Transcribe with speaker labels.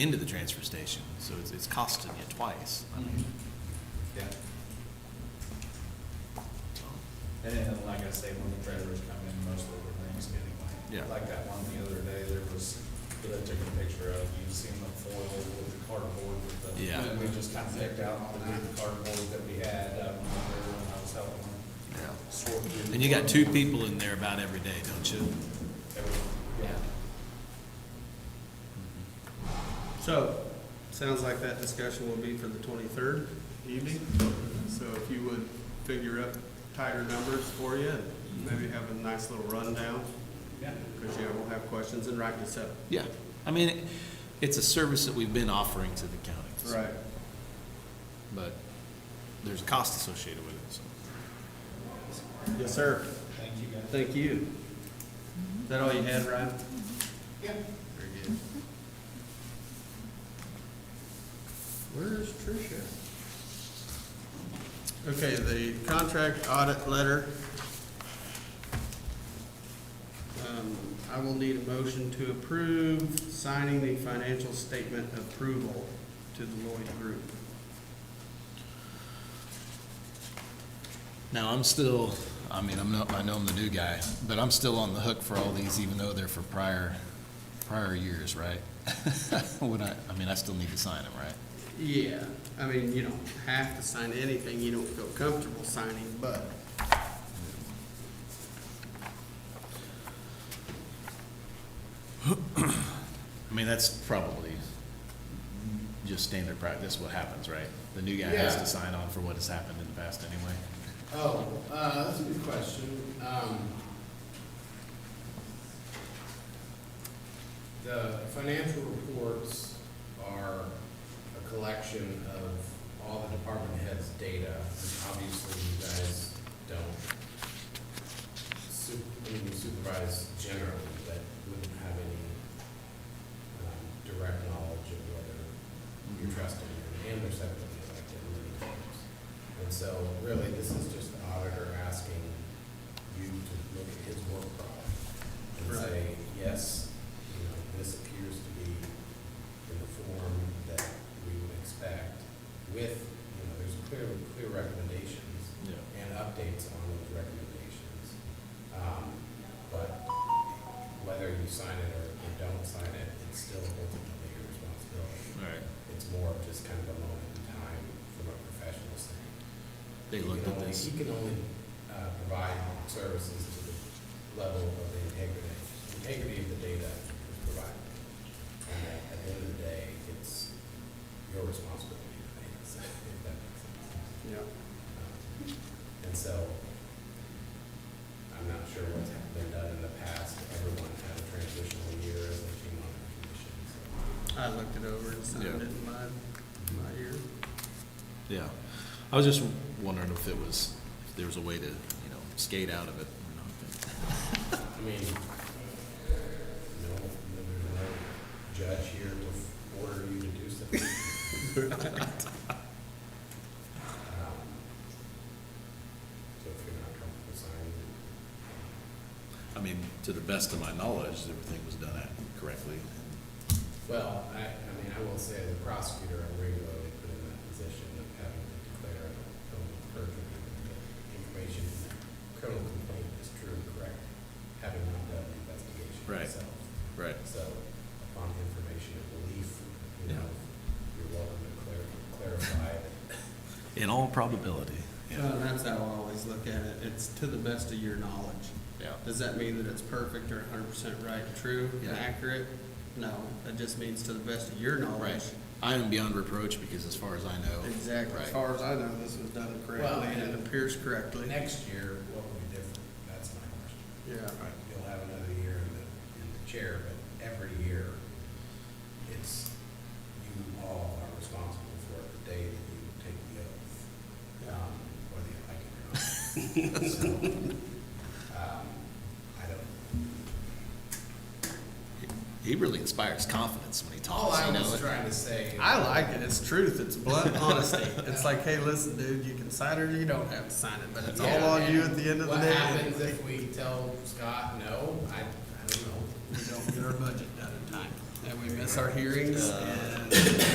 Speaker 1: into the transfer station, so it's, it's costing you twice. I mean,
Speaker 2: Yeah,
Speaker 1: so,
Speaker 2: and then, like I say, when the treasurers come in, most of the things anyway.
Speaker 1: Yeah.
Speaker 2: Like that one the other day, there was, that I took a picture of, you seen the foil with the cardboard with the.
Speaker 1: Yeah.
Speaker 2: We just kind of picked out all the good cardboard that we had, um, there when I was helping
Speaker 1: yeah.
Speaker 2: sort through.
Speaker 1: And you got two people in there about every day, don't you?
Speaker 2: Everything. Yeah.
Speaker 3: So, sounds like that discussion will be for the twenty-third evening, so if you would figure up tighter numbers for you, and maybe have a nice little rundown,
Speaker 2: Yeah.
Speaker 3: because yeah, we'll have questions and write this up.
Speaker 1: Yeah. I mean, it- it's a service that we've been offering to the county. so-
Speaker 3: Right.
Speaker 1: But there's a cost associated with it, so.
Speaker 3: Yes, sir.
Speaker 2: Thank you guys.
Speaker 3: Thank you. Is that all you had, Ryan?
Speaker 2: Yeah.
Speaker 3: Very good. Where's Tricia? Okay, the contract audit letter. Um, I will need a motion to approve signing the financial statement approval to the Lloyd Group.
Speaker 1: Now, I'm still, I mean, I'm not, I know I'm the new guy, but I'm still on the hook for all these, even though they're for prior, prior years, right? Would I, I mean, I still need to sign them, right?
Speaker 3: Yeah, I mean, you don't have to sign anything you don't feel comfortable signing, but
Speaker 1: I mean, that's probably just standard practice, what happens, right? The new guy has
Speaker 4: has
Speaker 1: to
Speaker 4: to
Speaker 1: sign on for what has happened in the past anyway.
Speaker 4: Oh, uh, that's a good question. Um, the financial reports are a collection of all the department heads' data. Obviously, you guys don't su- I mean, you supervise generally, but wouldn't have any, um, direct knowledge of whether you're trusting them and they're separately elected many times. And so really, this is just the auditor asking you to look at his work product and
Speaker 3: Right.
Speaker 4: say, yes, you know, this appears to be in the form that we would expect with, you know, there's clear, clear recommendations
Speaker 1: Yeah.
Speaker 4: and updates on those recommendations. Um, But whether you sign it or you don't sign it, it's still ultimately your responsibility.
Speaker 1: All right.
Speaker 4: It's more of just kind of a moment in time from a professional standpoint.
Speaker 1: They
Speaker 4: He
Speaker 1: looked
Speaker 4: can
Speaker 1: at
Speaker 4: only-
Speaker 1: this.
Speaker 4: He can only uh, provide services to the level of the integrity, integrity of the data is provided. And at at the end of the day, it's your responsibility to make this, if that makes sense.
Speaker 3: Yeah.
Speaker 4: Um, And so, I'm not sure what's hap- been done in the past, everyone had a transitional year as they came on the commission, so.
Speaker 3: I looked it over and signed
Speaker 1: Yeah.
Speaker 3: it in my, my ear.
Speaker 1: Yeah. I was just wondering if it was, if there was a way to, you know, skate out of it or not.
Speaker 4: I mean, no, no, there's no judge here to order you to do something. Um, So if you're not comfortable signing,
Speaker 1: I mean, to the best of my knowledge, everything was done at- correctly.
Speaker 4: well, I, I mean, I will say as a prosecutor, I'm regularly put in that position of having to declare a criminal perjury, that the information in the criminal complaint is true and correct, having not done an investigation
Speaker 1: Right.
Speaker 4: myself.
Speaker 1: Right.
Speaker 4: So upon information and belief, you
Speaker 1: Yeah.
Speaker 4: know, you're welcome to clar- clarify that.
Speaker 1: In all probability.
Speaker 3: Well, and that's how I always look at it. It's to the best of your knowledge.
Speaker 1: Yeah.
Speaker 3: Does that mean that it's perfect or hundred percent right and true
Speaker 1: Yeah.
Speaker 3: and accurate? No, it just means to the best of your knowledge.
Speaker 1: Right. I am beyond reproach because as far as I
Speaker 3: Oh,
Speaker 1: know.
Speaker 3: Exactly. As
Speaker 1: Right.
Speaker 3: far as I know, this was done correctly and it
Speaker 4: and-
Speaker 3: appears correctly.
Speaker 4: Next year, what will be different? That's my question.
Speaker 3: Yeah.
Speaker 4: You'll have another year in the, in the chair, but every year, it's, you all are responsible for the day that you take the oath, um, whether you like it or not. So, um, I don't.
Speaker 1: He really inspires confidence when he
Speaker 4: All
Speaker 1: talks,
Speaker 4: I
Speaker 1: you Oh, know?
Speaker 4: was trying to say.
Speaker 3: I like it. It's truth. It's blunt honesty. It's like, hey, listen, dude, you can sign it or you don't have to sign it, but it's all
Speaker 4: Yeah,
Speaker 3: on you
Speaker 4: and
Speaker 3: at the end of the
Speaker 4: What
Speaker 3: day.
Speaker 4: happens if we tell Scott no? I, I don't know.
Speaker 3: We don't get our budget done in time and we miss our hearings and